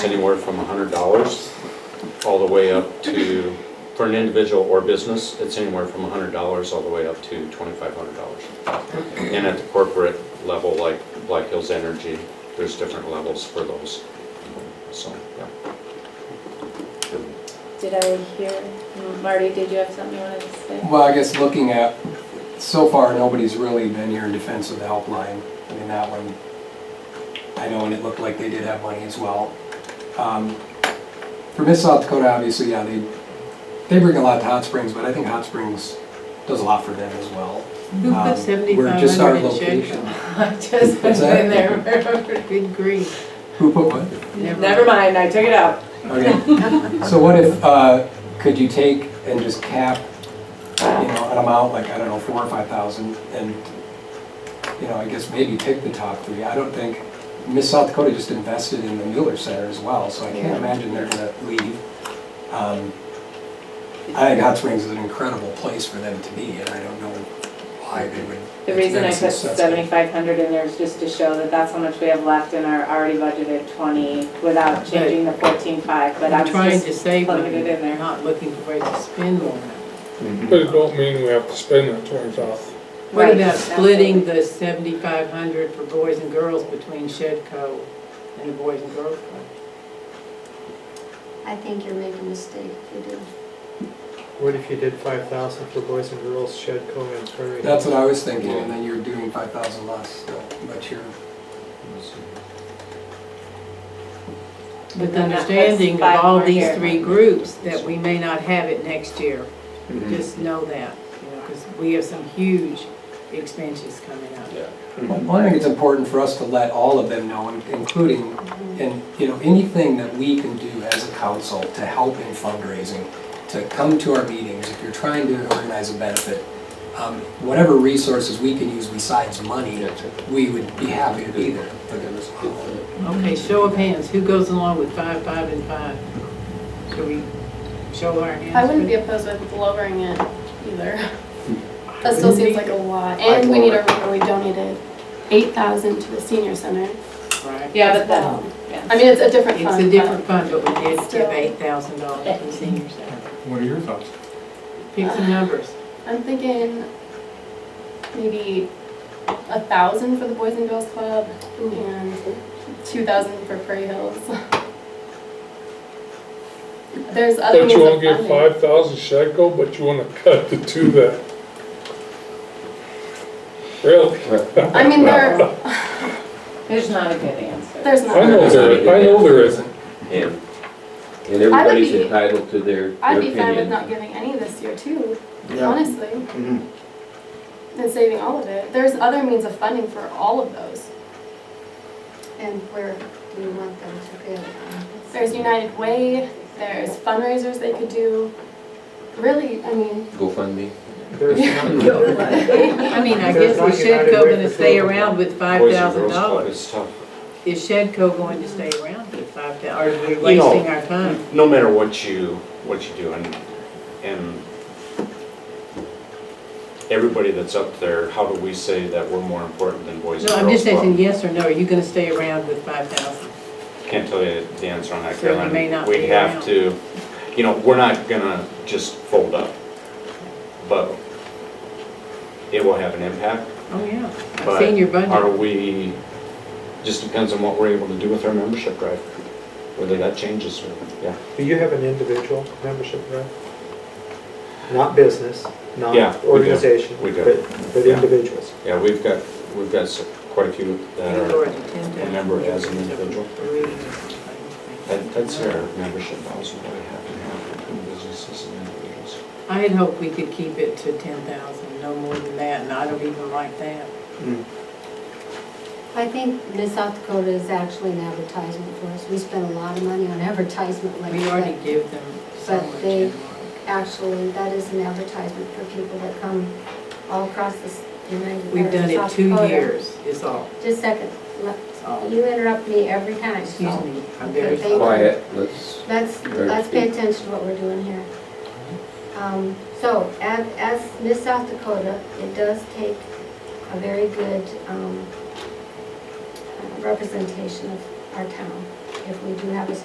anywhere from $100 all the way up to, for an individual or business, it's anywhere from $100 all the way up to $2,500. And at the corporate level, like Black Hills Energy, there's different levels for those. So, yeah. Did I hear, Marty, did you have something you wanted to say? Well, I guess looking at, so far, nobody's really been here in defense of the helpline. I mean, that one, I know, and it looked like they did have money as well. Um, For Miss South Dakota, obviously, yeah, they, they bring a lot to Hot Springs, but I think Hot Springs does a lot for them as well. Who Um, put We're just our 7,500 in location. Shadwell? I just What's that? there. Good grief. Who put what? Never mind, I took it out. Okay. So what if, uh, could you take and just cap, you know, an amount like, I don't know, four or five thousand and, you know, I guess maybe pick the top three. I don't think, Miss South Dakota just invested in the Mueller Center as well, so I can't Yeah. imagine they're gonna leave. Um, I think Hot Springs is an incredible place for them to be and I don't know why they would. The reason I that's put successful. seventy-five hundred in there is just to show that that's how much we have left in our already budgeted twenty without changing the fourteen-five, but I I'm was trying just to save plugging money, it in there. not looking for ways to spend more. But it don't mean we have to spend that twenty thousand. Right, What about that's splitting it. the seventy-five hundred for boys and girls between Shedco and the Boys and Girls Club? I think you're making a mistake if you do. What if you did five thousand for boys and girls, shed co and prairie? That's what I was thinking and then you're doing five thousand less, so, but you're, With And then that puts understanding of five all more these here. three groups, that we may not have it next year. Just know that, you know, because we have some huge expansions coming up. Yeah. Well, I think it's important for us to let all of them know, in- including, and, you know, anything that we can do as a council to help in fundraising, to come to our meetings, if you're trying to organize a benefit, um, whatever resources we can use besides money, we would be happy to be there. for them as well. Okay, show of hands, who goes along with five, five, and five? Should we show our hands? I wouldn't be opposed with lowering it either. That still seems like a lot, and we need to remember we donated eight thousand to the senior center. Right. Yeah, but as then, Um, well. yeah. I mean, it's a different It's a fund, different but fund, but we did give Still. eight thousand dollars to the senior center. What are your thoughts? Pick some numbers. I'm thinking maybe a thousand for the Boys and Girls Club and two thousand for Prairie Hills. There's other But means you of wanna give funding. five thousand Shadco, but you wanna cut the two that. Really? I mean, there, There's not a good answer. there's I know not, there, I know there isn't. And, and everybody's be- entitled to their their opinion. I'd be fine with not giving any this year too, honestly. and saving all of it. There's other means of funding for all of those. And where do you want them to be? There's United Way, there's fundraisers they could do. Really, I mean, GoFundMe. There's not- I mean, I There's guess not is United Shedco Way gonna for stay children. around with five Boys and thousand Girls Club dollars? is tough. Is Shedco going to stay around with five thousand, or are we You know- wasting our time? No matter what you, what you do, and, and everybody that's up there, how do we say that we're more important than Boys and Girls No, Club? I'm just asking yes or no, are you gonna stay around with five thousand? Can't tell you the answer on that, So you Caroline. may not We be have around. to, you know, we're not gonna just fold up, but it will have an impact. Oh, yeah, I've But seen your Are budget. we, just depends on what we're able to do with our membership drive, whether that changes, or- yeah. Do you have an individual membership rep? Not business, not Yeah, we do. organization, We but, do. but Yeah. individuals. Yeah, we've got, we've got s- quite a few that are, Remember Uh, remember as an individual. that- that's their membership policy, that we have to have between businesses and individuals. I had hoped we could keep it to ten thousand, no more than that, and I don't even like that. I think Miss South Dakota is actually an advertisement for us. We spend a lot of money on advertisement like We already that. give them so But much. they- in Actually, that is an advertisement for people that come all across this United. work. We've or done it South two Dakota. years, is all, Just a second. Let- It's all. You interrupt me every time. Excuse me, Oh, I'm very Okay, sorry. Quiet, let's, Let's, let's pay attention to what we're doing here. Um, So, as, as Miss South Dakota, it does take a very good um, uh, representation of our town if we do have a